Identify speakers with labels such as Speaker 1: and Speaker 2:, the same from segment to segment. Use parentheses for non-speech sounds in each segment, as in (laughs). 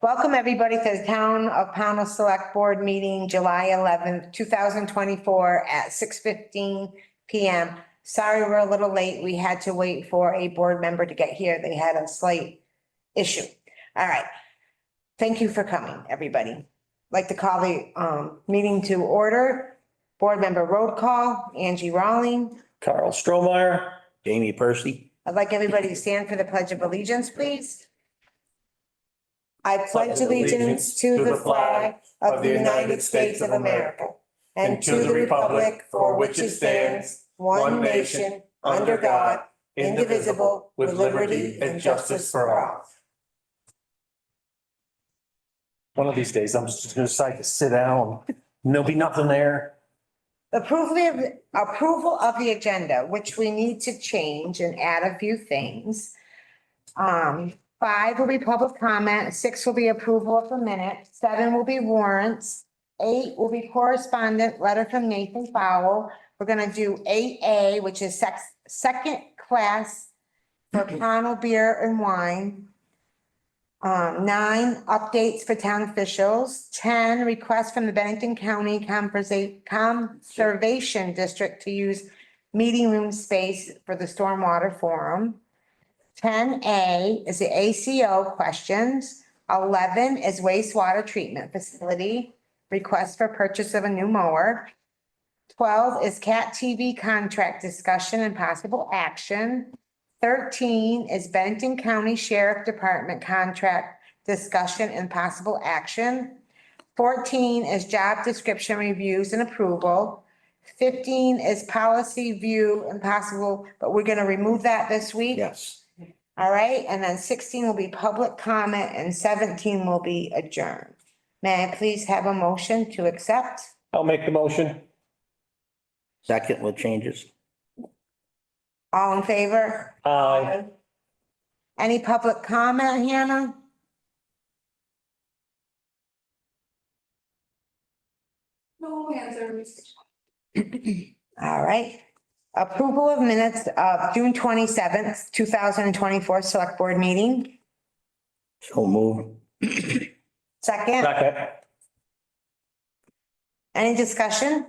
Speaker 1: Welcome, everybody, to the Town of Pownell Select Board Meeting, July eleventh, two thousand twenty-four at six fifteen PM. Sorry, we're a little late. We had to wait for a board member to get here. They had a slight issue. All right. Thank you for coming, everybody. Like to call the um meeting to order. Board member road call, Angie Rawling.
Speaker 2: Carl Stromeyer, Jamie Percy.
Speaker 1: I'd like everybody to stand for the pledge of allegiance, please. I pledge allegiance to the flag of the United States of America and to the republic for which it stands, one nation, under God, indivisible, with liberty and justice for all.
Speaker 2: One of these days, I'm just gonna decide to sit down. There'll be nothing there.
Speaker 1: Approval of, approval of the agenda, which we need to change and add a few things. Um, five will be public comment, six will be approval of the minute, seven will be warrants. Eight will be correspondent, letter from Nathan Powell. We're gonna do eight A, which is sex, second class for Pownell beer and wine. Um, nine, updates for town officials. Ten, request from the Bennington County Conversa- Conservation District to use meeting room space for the Stormwater Forum. Ten A is the ACO questions. Eleven is wastewater treatment facility, request for purchase of a new mower. Twelve is CAT TV contract discussion and possible action. Thirteen is Benton County Sheriff Department contract discussion and possible action. Fourteen is job description reviews and approval. Fifteen is policy view and possible, but we're gonna remove that this week.
Speaker 2: Yes.
Speaker 1: All right, and then sixteen will be public comment and seventeen will be adjourned. May I please have a motion to accept?
Speaker 2: I'll make the motion.
Speaker 3: Second with changes.
Speaker 1: All in favor?
Speaker 2: Aye.
Speaker 1: Any public comment, Hannah?
Speaker 4: No hands are raised.
Speaker 1: (clears throat) All right. Approval of minutes of June twenty-seventh, two thousand and twenty-four Select Board Meeting.
Speaker 3: So move.
Speaker 1: Second,
Speaker 2: Second.
Speaker 1: any discussion?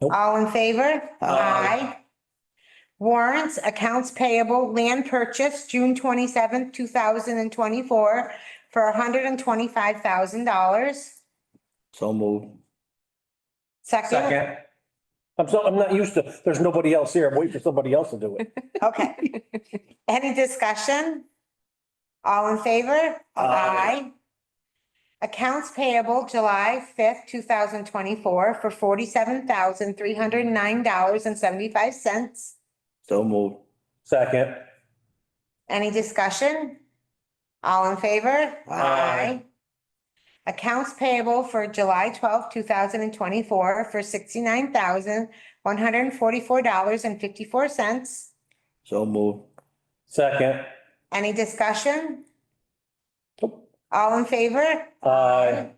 Speaker 2: Nope.
Speaker 1: All in favor?
Speaker 3: Aye.
Speaker 1: Warrants, accounts payable, land purchase, June twenty-seventh, two thousand and twenty-four for hundred and twenty-five thousand dollars.
Speaker 3: So move.
Speaker 1: Second,
Speaker 2: Second. I'm so, I'm not used to, there's nobody else here. I'm waiting for somebody else to do it.
Speaker 1: okay. Any discussion? All in favor?
Speaker 2: Aye.
Speaker 1: Accounts payable July fifth, two thousand twenty-four for forty-seven thousand, three hundred and nine dollars and seventy-five cents.
Speaker 3: So move.
Speaker 2: Second.
Speaker 1: Any discussion? All in favor?
Speaker 2: Aye.
Speaker 1: Accounts payable for July twelfth, two thousand and twenty-four for sixty-nine thousand, one hundred and forty-four dollars and fifty-four cents.
Speaker 3: So move.
Speaker 2: Second.
Speaker 1: Any discussion?
Speaker 2: Nope.
Speaker 1: All in favor?
Speaker 2: Aye.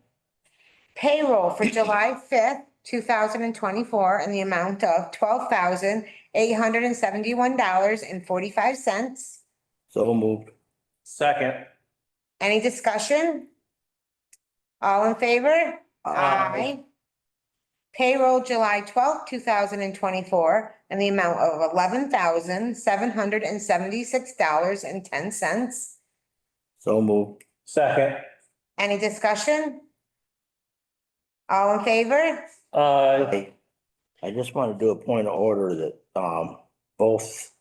Speaker 1: Payroll for July fifth, two thousand and twenty-four in the amount of twelve thousand, eight hundred and seventy-one dollars and forty-five cents.
Speaker 3: So moved.
Speaker 2: Second.
Speaker 1: Any discussion? All in favor? Payroll July twelfth, two thousand and twenty-four in the amount of eleven thousand, seven hundred and seventy-six dollars and ten cents.
Speaker 3: So moved.
Speaker 2: Second.
Speaker 1: Any discussion? All in favor?
Speaker 2: Aye.
Speaker 3: Hey, I just want to do a point of order that um both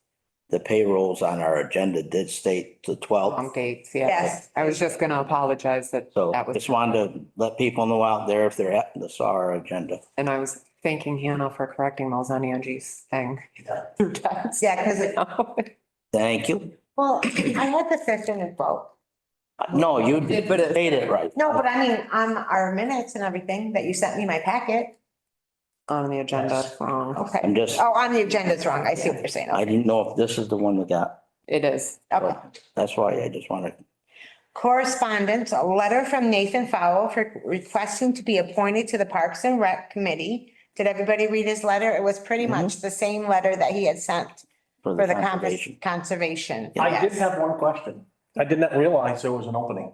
Speaker 3: the payrolls on our agenda did state the
Speaker 5: Long
Speaker 3: twelfth.
Speaker 5: dates,
Speaker 1: Yes.
Speaker 5: yes. I was just gonna apologize that
Speaker 3: So
Speaker 5: that was,
Speaker 3: just wanted to let people know out there if they're at the saw our agenda.
Speaker 5: and I was thanking Hannah for correcting those on Angie's thing. (laughs) through text.
Speaker 1: Yeah, 'cause it-
Speaker 3: Thank you.
Speaker 1: Well, I had the fifth and the vote.
Speaker 3: No, you did, but it made it right.
Speaker 1: No, but I mean, on our minutes and everything that you sent me my packet.
Speaker 5: (laughs) On the agenda, Um, wrong.
Speaker 1: Okay.
Speaker 3: I'm just,
Speaker 1: Oh, on the agenda's wrong. I see what you're saying.
Speaker 3: I didn't know if this is the one that got,
Speaker 5: It is.
Speaker 1: Okay.
Speaker 3: that's why I just wanted
Speaker 1: Correspondence, a letter from Nathan Fowle for requesting to be appointed to the Parks and Rec Committee. Did everybody read his letter? It was pretty much the same letter that he had sent
Speaker 3: for
Speaker 1: for
Speaker 3: the
Speaker 1: the conver-
Speaker 3: conversation.
Speaker 1: conservation.
Speaker 2: I did
Speaker 1: Yes.
Speaker 2: have one question. I did not realize there was an opening.